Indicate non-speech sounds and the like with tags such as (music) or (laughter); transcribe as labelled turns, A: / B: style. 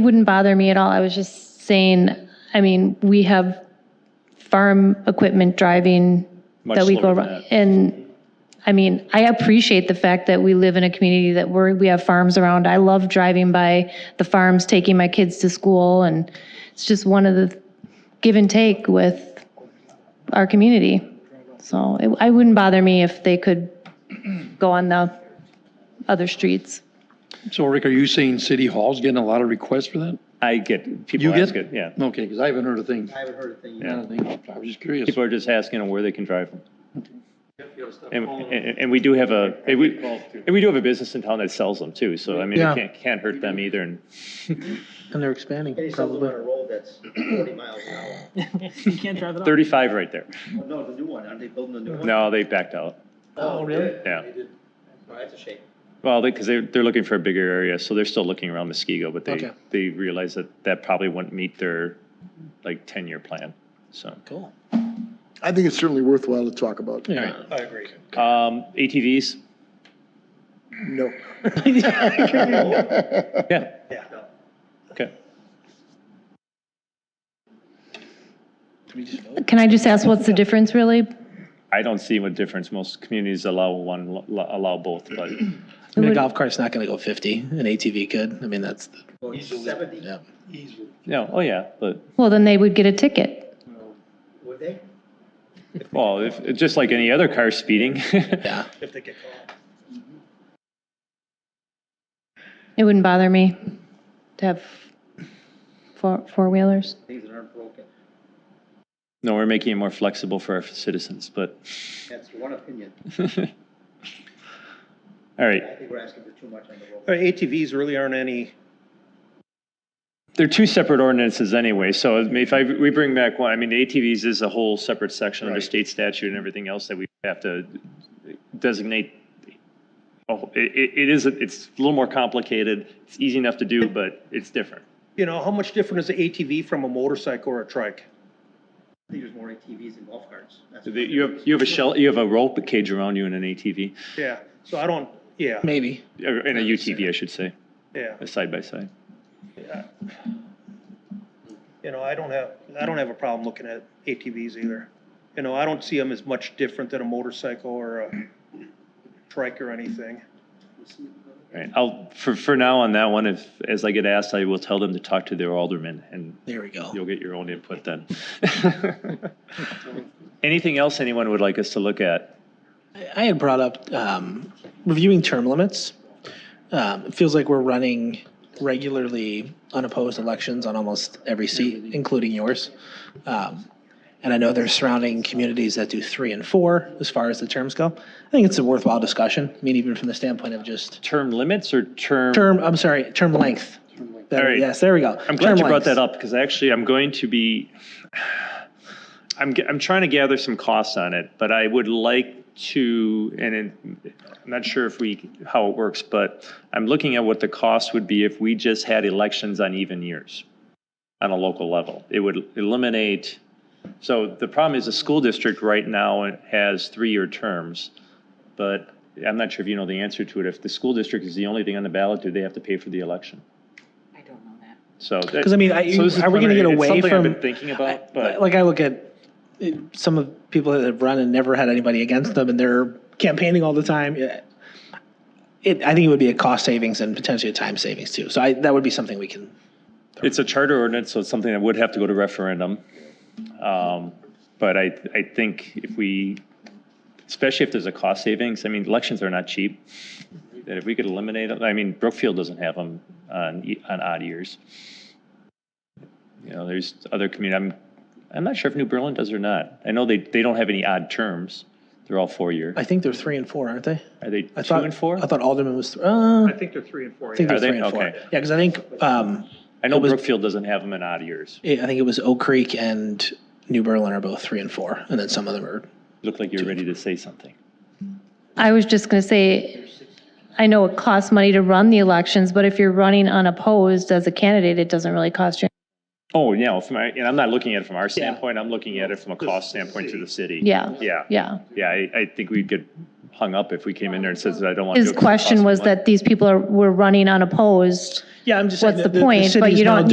A: Wouldn't bother me at all. I was just saying, I mean, we have farm equipment driving
B: Much
A: that we go
B: slower than
A: around.
B: that.
A: And, I mean, I appreciate the fact that we live in a community that we're, we have farms around. I love driving by the farms, taking my kids to school, and it's just one of the give and take with our community. So it I wouldn't bother me if they could go on the other streets.
C: So Rick, are you saying City Hall's getting a lot of requests for that?
B: I get,
C: You
D: Oh,
B: people
C: get?
B: ask it, yeah.
C: Okay, because I haven't heard a thing.
E: I haven't heard a thing.
C: I don't think- I was just curious.
B: People are just asking where they can drive from. And, and and we do have a, and we, and we do have a business in town that sells them too, so I mean,
D: Yeah.
B: it can't, can't hurt them either. And
D: And they're expanding,
E: Any
D: probably.
E: supplemental road that's forty miles an (clears throat) hour.
F: You can't drive it off.
B: thirty-five right there.
E: Oh, No, the new one, aren't they building a new one?
B: No, they backed out,
E: Oh, really?
B: yeah.
E: Oh, that's a shame.
B: Well, because they, they're looking for a bigger area, so they're still looking around Muskego, but they,
D: Okay.
B: they realize that that probably wouldn't meet their, like, ten-year plan, so.
D: Cool.
G: I think it's certainly worthwhile to talk about.
D: Yeah.
E: I agree.
B: Um, ATVs,
G: No.
B: (laughs) yeah,
E: Yeah.
B: okay.
A: Can I just ask, what's the difference really?
B: I don't see what difference, most communities allow one, lo- lo- allow both, but
D: I mean,
A: would-
D: a golf cart's not gonna go fifty, an ATV could, I mean, that's, the-
E: Going seventy,
D: yeah.
B: No, oh yeah, but,
A: Well, then they would get a ticket.
E: would they?
B: well, if, just like any other car speeding. (laughs)
D: Yeah,
E: If they get caught.
A: It wouldn't bother me to have four, four-wheelers.
E: Things that aren't broken.
B: No, we're making it more flexible for our citizens, but,
E: That's one opinion.
B: all right.
E: I think we're asking for too much on the road.
H: Uh, ATVs really aren't any,
B: They're two separate ordinances anyway, so I mean, if I, we bring back one, I mean, the ATVs is a whole separate section under state statute and everything else that we have to designate. Oh, it, it it is, it's a little more complicated, it's easy enough to do, but it's different.
H: you know, how much different is an ATV from a motorcycle or a trike?
E: I think there's more ATVs than golf carts. That's
B: The- You have, you have a shell, you have a rope cage around you in an ATV,
H: Yeah, so I don't, yeah,
D: maybe.
B: or in a UTV, I should say,
H: yeah.
B: a side by side.
H: You know, I don't have, I don't have a problem looking at ATVs either. You know, I don't see them as much different than a motorcycle or a trike or anything.
B: Right, I'll, for, for now on that one, if, as I get asked, I will tell them to talk to their alderman and
D: There we go.
B: You'll get your own input then. (laughs) Anything else anyone would like us to look at?
D: I had brought up um, reviewing term limits. Um, it feels like we're running regularly unopposed elections on almost every seat, including yours. Um, and I know there's surrounding communities that do three and four as far as the terms go. I think it's a worthwhile discussion. I mean, even from the standpoint of just
B: Term limits or term?
D: term, I'm sorry, term length. Better-
B: All right.
D: Yes, there we go.
B: I'm glad you brought that
D: up.
B: up because actually I'm going to be, I'm, g- I'm trying to gather some costs on it, but I would like to, and it- I'm not sure if we, how it works, but I'm looking at what the cost would be if we just had elections on even years on a local level. It would eliminate, so the problem is the school district right now has three-year terms, but I'm not sure if you know the answer to it. If the school district is the only thing on the ballot, do they have to pay for the election? I don't know that. So.
D: Because I mean, I,
B: So this is
D: are we going to get
B: preliminary. It's
D: away
B: something I've
D: from?
B: been thinking about,
D: I-
B: but-
D: like I look at eh, some of people that have run and never had anybody against them, and they're campaigning all the time. Yeah. It, I think it would be a cost savings and potentially a time savings too. So I, that would be something we can.
B: It's a charter ordinance, so it's something that would have to go to referendum. Um, But I, I think if we, especially if there's a cost savings, I mean, elections are not cheap. That if we could eliminate, them, I mean, Brookfield doesn't have them on, e- on odd years. You know, there's other community, I'm, I'm not sure if New Berlin does or not. I know they, they don't have any odd terms. They're all four-year.
D: I think they're three and four, aren't they?
B: Are they two
D: I thought
B: and four?
D: I thought Alderman was. Th- uh,
H: I think they're three and four,
D: I
H: yeah.
D: think they're
B: Are they?
D: three and four.
B: Okay.
D: Yeah, because I think um,
B: I know
D: it was-
B: Brookfield doesn't have them in odd years.
D: eh, I think it was Oak Creek and New Berlin are both three and four, and then some of them are.
B: Looked like you were ready to say something.
A: I was just going to say, I know it costs money to run the elections, but if you're running unopposed as a candidate, it doesn't really cost you.
B: Oh, yeah, well, from my, and I'm not looking at it from our standpoint, I'm looking at it from a cost standpoint to the city.
A: Yeah,
B: Yeah,
A: yeah.
B: yeah, I, I think we'd get hung up if we came in there and says, I don't want to.
A: His question was that these people are, were running unopposed
D: Yeah, I'm just saying.
A: what's the point? But
D: city's
A: you
D: now
A: don't